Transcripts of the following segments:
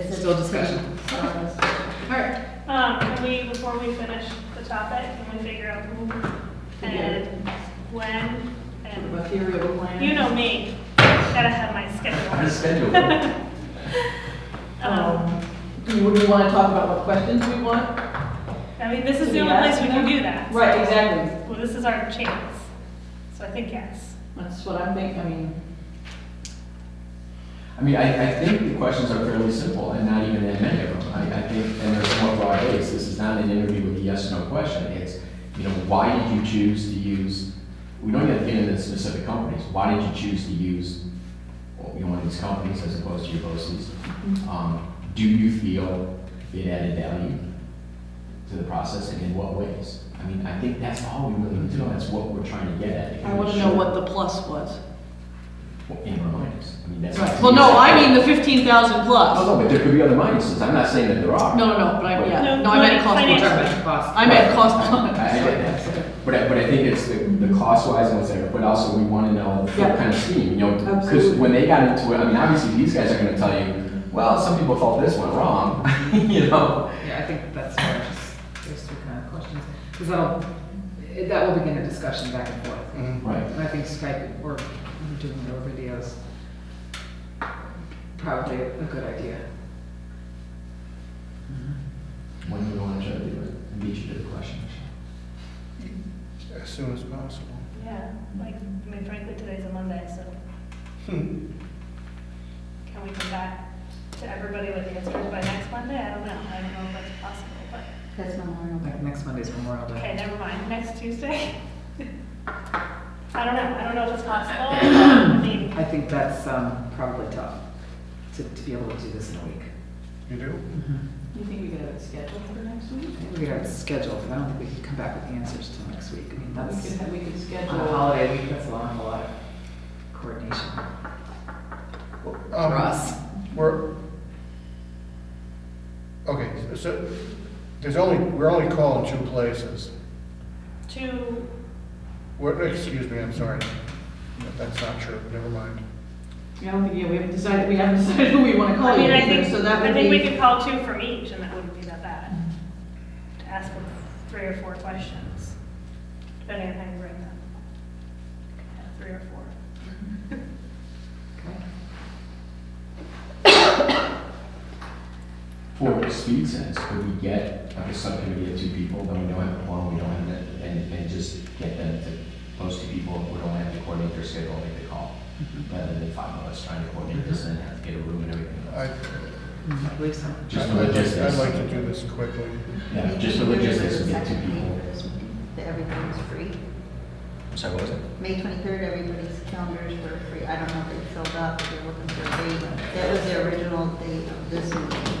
still discussion. Alright, Um, can we, before we finish the topic, can we figure out who and when and, material plan. you know me, gotta have my Our schedule. schedule. Um, Um, do you, do you wanna talk about what questions we want? I mean, this is Can we the only place ask we can them? do that. Right, exactly. Well, this is our chance, so I think yes. That's what I'm thinking, I mean, I mean, I, I think the questions are fairly simple and not even that many of them. I, I think, and they're somewhat broad based. This is not an interview with a yes or no question. It's, you know, why did you choose to use, we don't have to get into specific companies. Why did you choose to use, well, you know, one of these companies as opposed to your BOCs? Mm-hmm. Um, do you feel it added value to the process and in what ways? I mean, I think that's all we really need to know. That's what we're trying to get at. I wanna know what the plus was. And remind us. I mean, that's. Well, no, I mean the fifteen thousand plus. Oh, no, but there could be other minuses, I'm not saying that there are. No, no, no, but I, yeah, No, no, I meant like cost. financial. I meant cost. I- I get that. But I, but I think it's the, the cost-wise and what's there, but also we wanna know Yeah. what kind of scheme, you know? Because Absolutely. when they got into it, I mean, obviously, these guys are gonna tell you, well, some people thought this went wrong, you know? Yeah, I think that's where I just, there's two kind of questions, because that'll, it- that will begin a discussion back and forth. Mm-hmm. Right, And I think Skype or doing it over videos, probably a good idea. when do we wanna try to do it, I beat you to the question. As soon as possible. Yeah, like, I mean, frankly, today's a Monday, so. Hmm. Can we come back to everybody with answers by next Monday? I don't know, I don't know if that's possible, but, That's Memorial Day. Like next Monday's Memorial Day. okay, never mind, next Tuesday? I don't know, I don't know if it's possible, I mean, I think that's um, probably tough to, to be able to do this in a week. You do? Mm-hmm. You think we could have it scheduled for next week? I think we have it scheduled, but I don't think we can come back with answers till next week. I mean, We that's, could, have- we could on a schedule. holiday week, that's a lot, a lot of coordination. For us. Um, We're, okay, so- so, there's only, we're only calling two places. two, We're, excuse me, I'm sorry. No, That's not true, never mind. I don't think, yeah, we haven't decided, we haven't decided who we wanna call I mean, I yet, think, so that I would think we be. could call two from each, and that wouldn't be that bad. To ask them three or four questions, depending on how you bring them. Yeah, Three or four. Okay. For speed sense, could we get, like, a subcommittee of two people, then we don't have one, we don't have that, and, and just get them to, those two people, we don't have to coordinate their schedule, and make the call, rather than five of us trying to coordinate this and have to get a room and everything else. I, I believe so. Just the I'd like- logistics. I'd like to do this quickly. Yeah, just the logistics would get two Second meeting people. for this meeting, That everything's free. Sorry, what was it? May 23rd, everybody's calendars were free. I don't know if they filled up, if you're looking for a date. That was the original date of this meeting.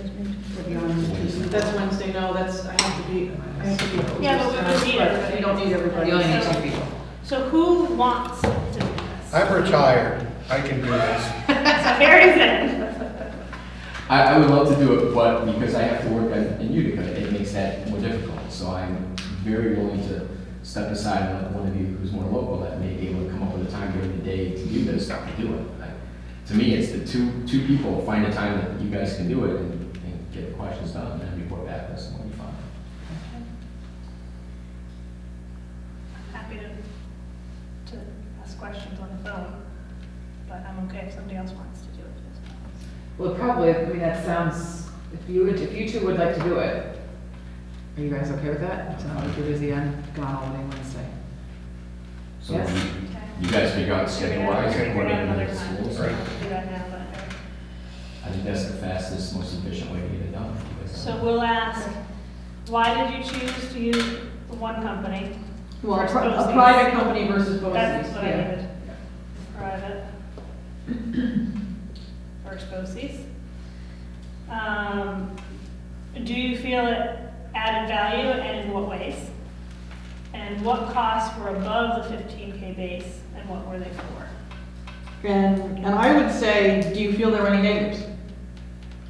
If you want to choose. That's Wednesday, no, that's, I have to be, I have to be. Yeah, but we would need everybody. We don't need everybody. You only need two people. So who wants to do this? I'm retired, I can do this. So Harry's in. I, I would love to do it, but because I have to work at- in Utica, it makes that more difficult. So I'm very willing to step aside and let one of you who's more local that may be able to come up with a time during the day to do this, I can do it. Like, To me, it's the two, two people, find a time that you guys can do it and, and get the questions done and then report back, that's what we find. Happy to, to ask questions on the phone, but I'm okay if somebody else wants to do it. Well, probably, I mean, that sounds, if you, would- if you two would like to do it, are you guys okay with that? It's not like you're busy, I'm gone all day Wednesday. So Yes. you- Okay. you guys figure out schedule wise and Figure it out coordinate another with time. the schools. Right. Do that now, but- I think that's the fastest, most efficient way to get it done. So we'll ask, why did you choose to use the one company? Well, a versus pri- a BOCES? private company versus BOCES, That's what I yeah. needed. Private. First BOCES. Um, do you feel it added value and in what ways? And what costs were above the fifteen K base and what were they for? And, and I would say, do you feel there are any negatives?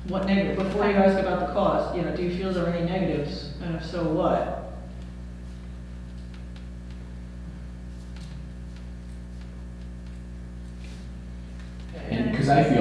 What negative, before you ask about the cost, you know, do you feel there are any negatives, and if so, what? And, because I feel